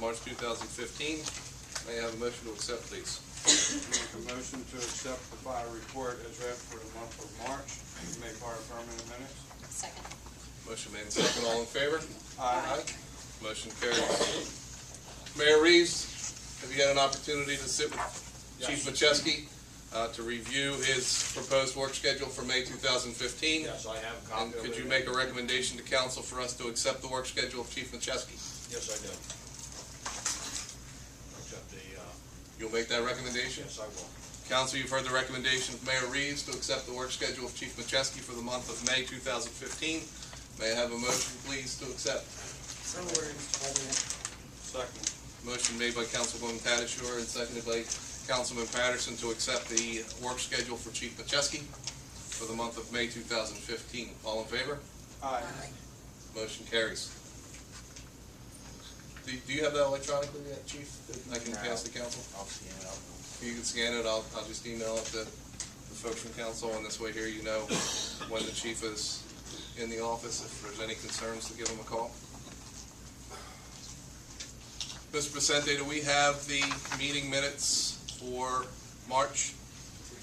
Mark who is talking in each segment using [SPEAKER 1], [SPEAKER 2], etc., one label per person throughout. [SPEAKER 1] March 2015. May I have a motion to accept, please?
[SPEAKER 2] Make a motion to accept the fire report as read for the month of March, made part of permanent minutes.
[SPEAKER 3] Second.
[SPEAKER 1] Motion made and seconded. All in favor?
[SPEAKER 2] Aye.
[SPEAKER 1] Motion carries. Mayor Reeves, have you had an opportunity to sit with Chief Macheski uh, to review his proposed work schedule for May 2015?
[SPEAKER 4] Yes, I have a copy
[SPEAKER 1] And
[SPEAKER 4] of
[SPEAKER 1] could
[SPEAKER 4] it.
[SPEAKER 1] you make a recommendation to council for us to accept the work schedule of Chief Macheski?
[SPEAKER 4] Yes, I do. Accept the, uh,
[SPEAKER 1] You'll make that recommendation?
[SPEAKER 4] yes, I will.
[SPEAKER 1] Council, you've heard the recommendation of Mayor Reeves to accept the work schedule of Chief Macheski for the month of May 2015. May I have a motion, please, to accept?
[SPEAKER 5] So ordered, Mr. President.
[SPEAKER 2] Second.
[SPEAKER 1] Motion made by Councilwoman Patashur and seconded by Councilman Patterson to accept the work schedule for Chief Macheski for the month of May 2015. All in favor?
[SPEAKER 2] Aye.
[SPEAKER 1] Motion carries. Do do you have that electronically yet, Chief? that I can pass the council?
[SPEAKER 6] I'll scan it up.
[SPEAKER 1] You can scan it, I'll, I'll just email it to the folks from council, and this way here you know when the chief is in the office, if there's any concerns, to give him a call. Mr. Vicente, do we have the meeting minutes for March?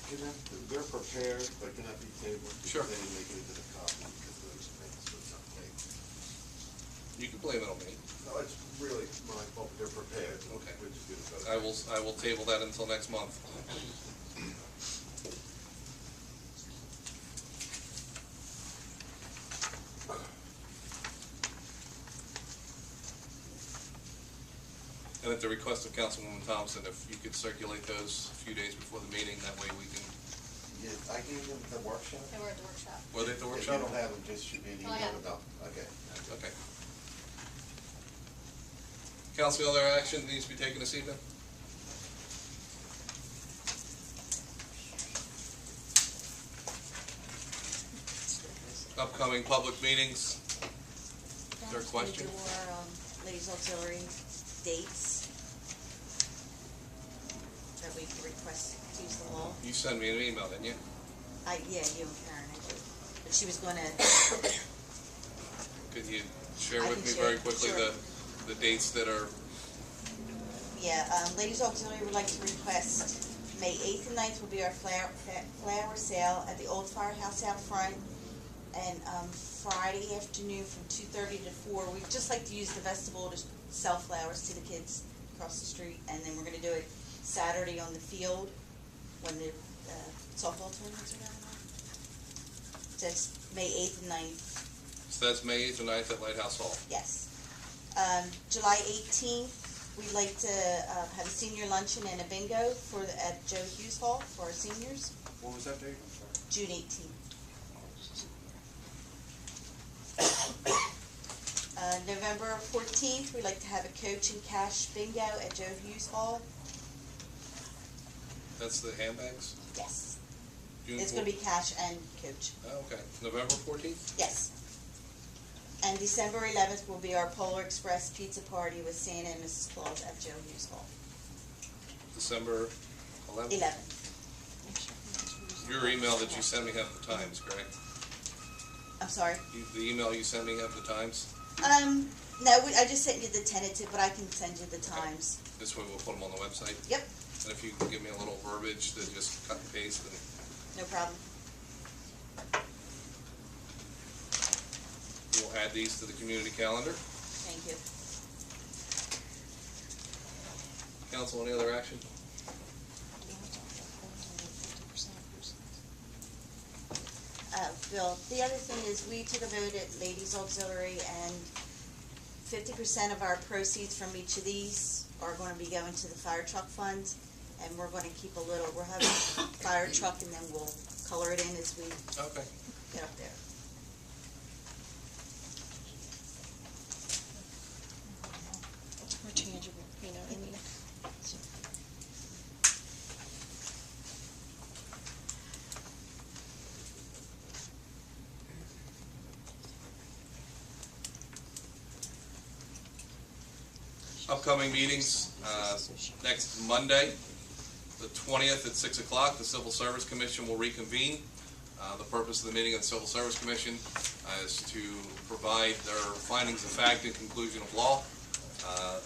[SPEAKER 6] Can I, they're prepared, but can I be tabled?
[SPEAKER 1] Sure.
[SPEAKER 6] They didn't make it into the copy because those things were not made.
[SPEAKER 1] You can blame it on me.
[SPEAKER 6] No, it's really my fault, they're prepared.
[SPEAKER 1] Okay. Uh,
[SPEAKER 6] We're just doing it.
[SPEAKER 1] I will, I will table that until next month. And at the request of Councilwoman Thompson, if you could circulate those a few days before the meeting, that way we can,
[SPEAKER 6] Yeah, I gave them the workshop.
[SPEAKER 3] They were at the workshop.
[SPEAKER 1] were they at the workshop?
[SPEAKER 6] If you don't have them, just shoot me an
[SPEAKER 3] Oh, I
[SPEAKER 6] email
[SPEAKER 3] have
[SPEAKER 6] about, okay.
[SPEAKER 1] Okay. Council, other action needs to be taken this evening? Upcoming public meetings, Is there a question?
[SPEAKER 7] Do our um, ladies auxiliary dates that we can request to use the law?
[SPEAKER 1] you send me an email, didn't you?
[SPEAKER 7] I, yeah, you and Karen, I do. But she was gonna,
[SPEAKER 1] Could you share
[SPEAKER 7] I
[SPEAKER 1] with
[SPEAKER 7] can
[SPEAKER 1] me
[SPEAKER 7] share,
[SPEAKER 1] very quickly the,
[SPEAKER 7] sure.
[SPEAKER 1] the dates that are,
[SPEAKER 7] yeah, um, ladies auxiliary would like to request, May eighth and 9th will be our flower, fa- flower sale at the old firehouse out front. And, um, Friday afternoon from two thirty to four, we'd just like to use the vestibule to sell flowers to the kids across the street. And then we're gonna do it Saturday on the field. when the uh, softball tournaments are going on. That's May 8th and 9th,
[SPEAKER 1] so that's May eighth and ninth at Lighthouse Hall.
[SPEAKER 7] yes. Um, July 18th, we'd like to uh, have a senior luncheon and a bingo for the, at Joe Hughes Hall for our seniors,
[SPEAKER 2] What was that date? I'm sorry.
[SPEAKER 7] June 18th. Uh, November 14th, we'd like to have a coach and cash bingo at Joe Hughes Hall.
[SPEAKER 1] That's the handbags?
[SPEAKER 7] Yes.
[SPEAKER 1] June
[SPEAKER 7] It's going to be cash and coach.
[SPEAKER 1] four- Oh, okay, November fourteenth?
[SPEAKER 7] Yes. And December eleventh will be our Polar Express pizza party with Santa and Mrs. Claus at Joe Hughes Hall.
[SPEAKER 1] December eleventh?
[SPEAKER 7] Eleventh.
[SPEAKER 1] Your email that you sent me have the times, correct?
[SPEAKER 7] I'm sorry.
[SPEAKER 1] You- The email you sent me have the times?
[SPEAKER 7] Um, no, we, I just sent you the tentative, but I can send you the times.
[SPEAKER 1] This way we'll put them on the website.
[SPEAKER 7] Yep,
[SPEAKER 1] And if you can give me a little verbiage to just cut and paste and
[SPEAKER 7] no problem.
[SPEAKER 1] we'll add these to the community calendar.
[SPEAKER 7] Thank you.
[SPEAKER 1] Council, any other action?
[SPEAKER 7] Uh, Bill, the other thing is we took a vote at Ladies Auxiliary and fifty percent of our proceeds from each of these are gonna be going to the fire truck fund. And we're gonna keep a little, we're having fire truck and then we'll color it in as we
[SPEAKER 1] Okay.
[SPEAKER 7] get up there.
[SPEAKER 3] We're tangible, you know what I mean? So-
[SPEAKER 1] Upcoming meetings, uh, next Monday, the twentieth at six o'clock, the Civil Service Commission will reconvene. Uh, the purpose of the meeting of the Civil Service Commission uh, is to provide their findings of fact and conclusion of law. Uh,